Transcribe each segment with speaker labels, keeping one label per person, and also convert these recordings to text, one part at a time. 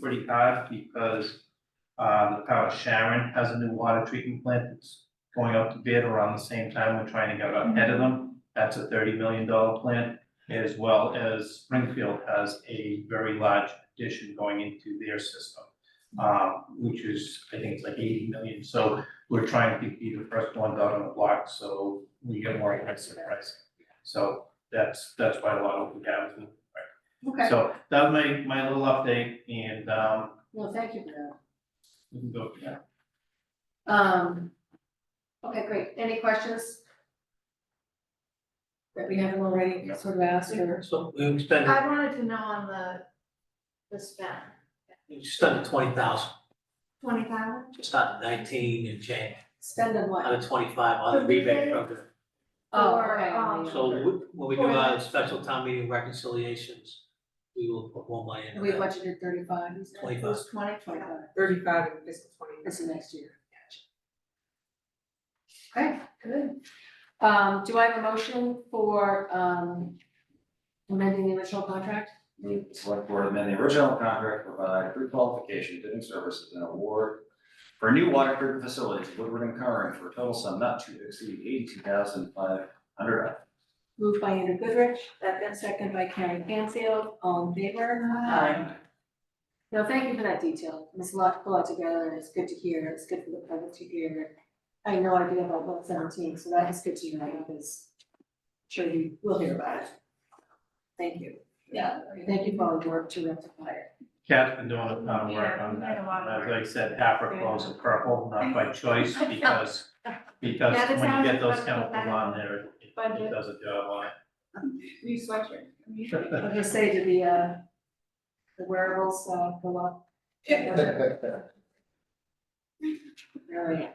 Speaker 1: pretty hard because uh, the town of Sharon has a new water treatment plant that's going out to bid around the same time. We're trying to get ahead of them. That's a thirty million dollar plant, as well as Springfield has a very large addition going into their system. uh, which is, I think it's like eighty million, so we're trying to be the first ones out on the block, so we get more expensive pricing. So that's, that's why a lot of the guys in
Speaker 2: Okay,
Speaker 1: so that was my, my little update and, um,
Speaker 2: well, thank you for
Speaker 1: we can go, yeah.
Speaker 2: that. Um, okay, great. Any questions? That we haven't already
Speaker 1: No.
Speaker 2: sort of asked or?
Speaker 3: So we spent,
Speaker 4: I wanted to know on the, the spend,
Speaker 3: we spent twenty thousand,
Speaker 4: twenty thousand?
Speaker 3: just out of nineteen and change,
Speaker 2: Spend on
Speaker 3: out
Speaker 2: what?
Speaker 3: of twenty-five on the
Speaker 4: But we
Speaker 3: rebate
Speaker 4: did-
Speaker 3: program.
Speaker 2: Oh,
Speaker 4: Or,
Speaker 2: okay,
Speaker 4: um,
Speaker 3: So we- when we do
Speaker 4: For
Speaker 3: our
Speaker 4: that.
Speaker 3: special town meeting reconciliations, we will put more money
Speaker 2: We
Speaker 3: into that.
Speaker 2: budgeted thirty-five, you said?
Speaker 3: 25.
Speaker 2: It was Twenty, twenty-five,
Speaker 5: thirty-five in fiscal twenty.
Speaker 2: this is next year. Okay, good. Um, do I have a motion for, um, amending the original contract?
Speaker 6: Move the select board amend the original contract, to provide pre-qualification, bidding services and award for new water treatment facility to Woodward and Curran for a total sum not to exceed eighty-two thousand five hundred.
Speaker 2: Moved by Andrew Goodrich, second, second by Karen Canfield, all in favor? No, thank you for that detail. It's a lot, a lot together and it's good to hear. It's good for the public to hear. I had no idea about one seventeen, so that is good to know because I'm sure you will hear about it. Thank you. Yeah, thank you for all the work to rectify it.
Speaker 1: Kat's been doing a ton of uh, work
Speaker 4: Yeah,
Speaker 1: on
Speaker 4: we
Speaker 1: that,
Speaker 4: had a lot of
Speaker 1: as
Speaker 4: work.
Speaker 1: I said, Africa was a purple, not by choice, because, because
Speaker 4: Yeah, this
Speaker 1: when you
Speaker 4: sounds
Speaker 1: get those
Speaker 4: like
Speaker 1: chemicals
Speaker 4: better
Speaker 1: on there, it- it
Speaker 4: budget.
Speaker 1: does a job on it.
Speaker 4: New sweatshirt.
Speaker 2: I was gonna say, did the, uh, the wearables, uh, go up? All right.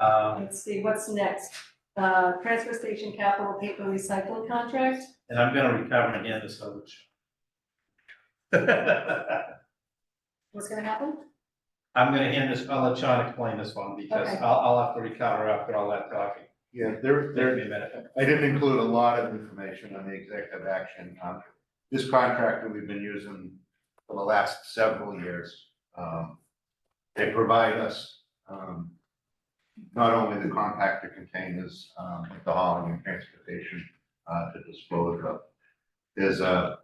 Speaker 1: Um,
Speaker 2: Let's see, what's next? Uh, transfer station capital paper recycling contract?
Speaker 1: and I'm gonna recover and hand this over to
Speaker 2: What's gonna happen?
Speaker 1: I'm gonna hand this, I'll let Sean explain this one, because
Speaker 2: Okay.
Speaker 1: I'll, I'll have to recover after all that talking,
Speaker 7: Yeah, there,
Speaker 1: give
Speaker 7: there,
Speaker 1: me a minute.
Speaker 7: I didn't include a lot of information on the executive action contract. This contract that we've been using for the last several years, um, they provide us, um, not only the compactor containers, um, but the hauling and transportation, uh, to dispose of. There's a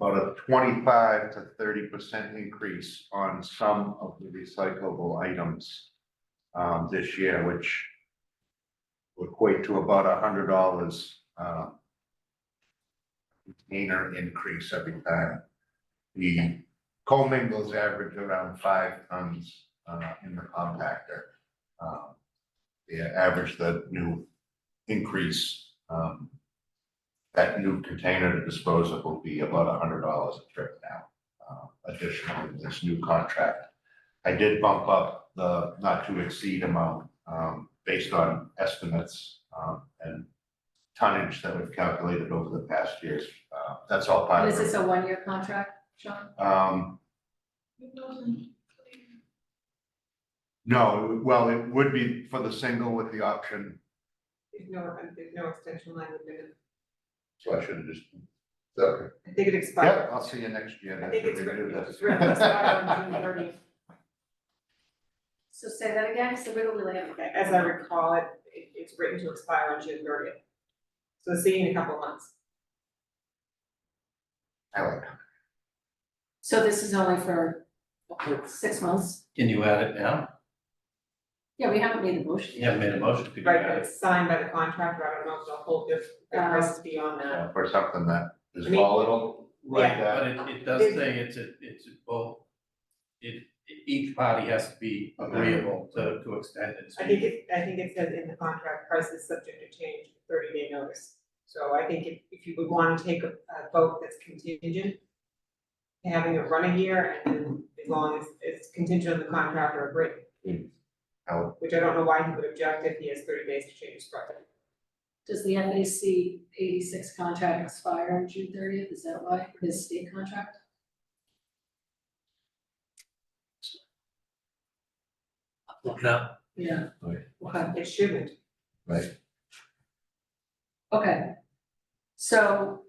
Speaker 7: about a twenty-five to thirty percent increase on some of the recyclable items, um, this year, which would equate to about a hundred dollars, uh, container increase every time. The commingles average around five tons, uh, in the compactor. Um, Yeah, average the new increase, um, that new container to dispose of will be about a hundred dollars a trip now, uh, additional to this new contract. I did bump up the not to exceed amount, um, based on estimates, um, and tonnage that we've calculated over the past years. Uh, that's all
Speaker 2: And
Speaker 7: part
Speaker 2: is
Speaker 7: of
Speaker 2: this
Speaker 7: it.
Speaker 2: a one-year contract, Sean?
Speaker 7: Um, no, well, it would be for the single with the option,
Speaker 5: There's no, there's no extension line with it.
Speaker 7: so I should have just. Okay.
Speaker 5: I think it expired.
Speaker 7: Yeah, I'll see you next year.
Speaker 5: I think it's
Speaker 7: That's what we do
Speaker 5: written,
Speaker 7: this.
Speaker 5: it's written, expired on June thirtieth.
Speaker 2: So say that again, so we don't really have.
Speaker 5: As I recall, it, it- it's written to expire on June thirtieth. So see you in a couple of months.
Speaker 7: I like
Speaker 2: So this is only for six months?
Speaker 1: Can you add it now?
Speaker 2: Yeah, we haven't made a motion.
Speaker 1: You haven't made a motion, could you
Speaker 5: Right,
Speaker 1: add
Speaker 5: but
Speaker 1: it?
Speaker 5: it's signed by the contractor. I don't know if they'll hold if the
Speaker 2: Um,
Speaker 5: price is beyond that.
Speaker 7: that. For something that is
Speaker 5: I mean-
Speaker 7: volatile, like that.
Speaker 1: But it, it does say it's a, it's a both, it, each party has to be agreeable to, to extend it. so
Speaker 5: I think it, I think it says in the contract, price is subject to change, thirty day notice. So I think if, if you would wanna take a, a vote that's contingent, having it run a year and then as long as it's contingent on the contractor agreeing.
Speaker 7: Oh.
Speaker 5: Which I don't know why he would object if he has thirty days to change his price.
Speaker 2: Does the FAC eighty-six contract expire on June thirtieth? Is that why, his state contract?
Speaker 3: Look it up.
Speaker 2: Yeah.
Speaker 7: Right.
Speaker 2: Okay,
Speaker 5: It shouldn't.
Speaker 2: okay. So